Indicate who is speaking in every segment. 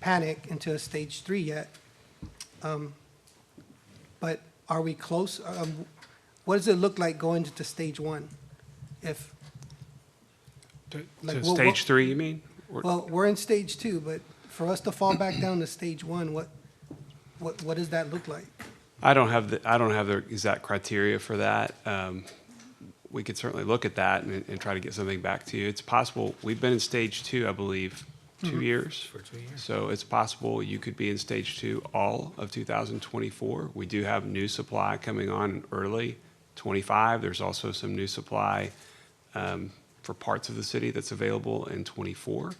Speaker 1: panic into a stage three yet. Um, But are we close? Um, What does it look like going to stage one? If,
Speaker 2: To,
Speaker 1: Like,
Speaker 2: to
Speaker 1: what-
Speaker 2: stage
Speaker 1: what-
Speaker 2: three, you mean? Or-
Speaker 1: well, we're in stage two, but for us to fall back down to stage one, what, what, what does that look like?
Speaker 2: I don't have the I don't have the exact criteria for that. Um, we could certainly look at that and, and try to get something back to you. It's possible we've been in stage two, I believe, 2
Speaker 1: Mm-hmm.
Speaker 2: years. For two years. So it's possible you could be in stage two all of 2024. We do have new supply coming on early 25. There's also some new supply um, for parts of the city that's available in 24.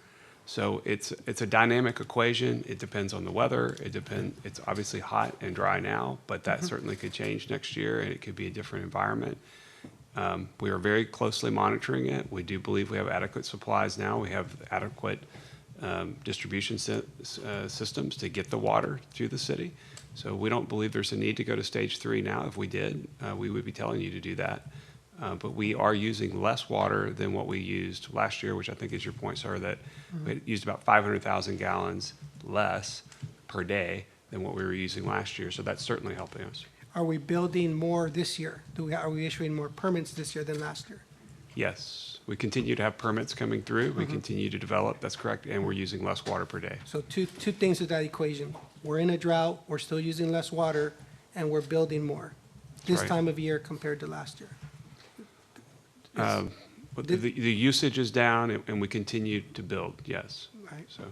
Speaker 2: So it's, it's a dynamic equation. It depends on the weather. It depend, it's obviously hot and dry now, but that certainly could change next year and it could be a different environment. Um, We are very closely monitoring it. We do believe we have adequate supplies now. We have adequate um, distribution sy- uh, systems to get the water through the city. So we don't believe there's a need to go to stage three now. If we did, uh, we would be telling you to do that. Uh, But we are using less water than what we used last year, which I think is your point, sir, that
Speaker 1: Mm-hmm.
Speaker 2: we had used about 500,000 gallons less per day than what we were using last year. So that's certainly helping us.
Speaker 1: Are we building more this year? Do we, are we issuing more permits this year than last year?
Speaker 2: Yes, we continue to have permits coming through,
Speaker 1: Mm-hmm.
Speaker 2: we continue to develop, that's correct, and we're using less water per day.
Speaker 1: So two, two things to that equation. We're in a drought, we're still using less water, and we're building more this
Speaker 2: Right.
Speaker 1: time of year compared to last year.
Speaker 2: Um, But the, the usage is down and- and we continue to build, yes.
Speaker 1: Right.
Speaker 2: So,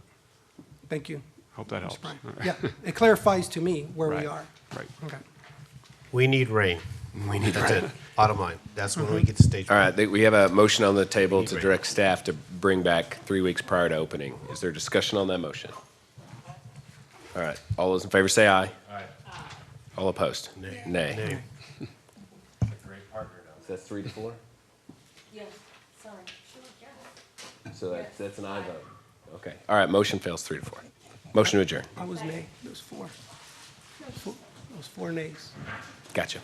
Speaker 1: Thank you.
Speaker 2: hope that helps.
Speaker 1: Mr. Bryan.
Speaker 2: All right.
Speaker 1: Yeah, it clarifies to me where we
Speaker 2: Right.
Speaker 1: are.
Speaker 2: Right.
Speaker 1: Okay.
Speaker 3: We need rain. We need That's it. Bottom line. That's when we get to stage.
Speaker 4: All right, th- we have a motion on the table to
Speaker 3: Great.
Speaker 4: direct staff to bring back three weeks prior to opening. Is there discussion on that motion? All right, all those in favor say aye. Aye. All opposed?
Speaker 3: Nay.
Speaker 4: Nay.
Speaker 3: Nay.
Speaker 4: So that's three to four?
Speaker 5: Yes, sorry, sure, yeah.
Speaker 4: So that's, that's an aye vote. Okay, all right, motion fails three to four. Motion to adjourn.
Speaker 1: I was nay, It was four. Four- It was four nays.
Speaker 4: Gotcha.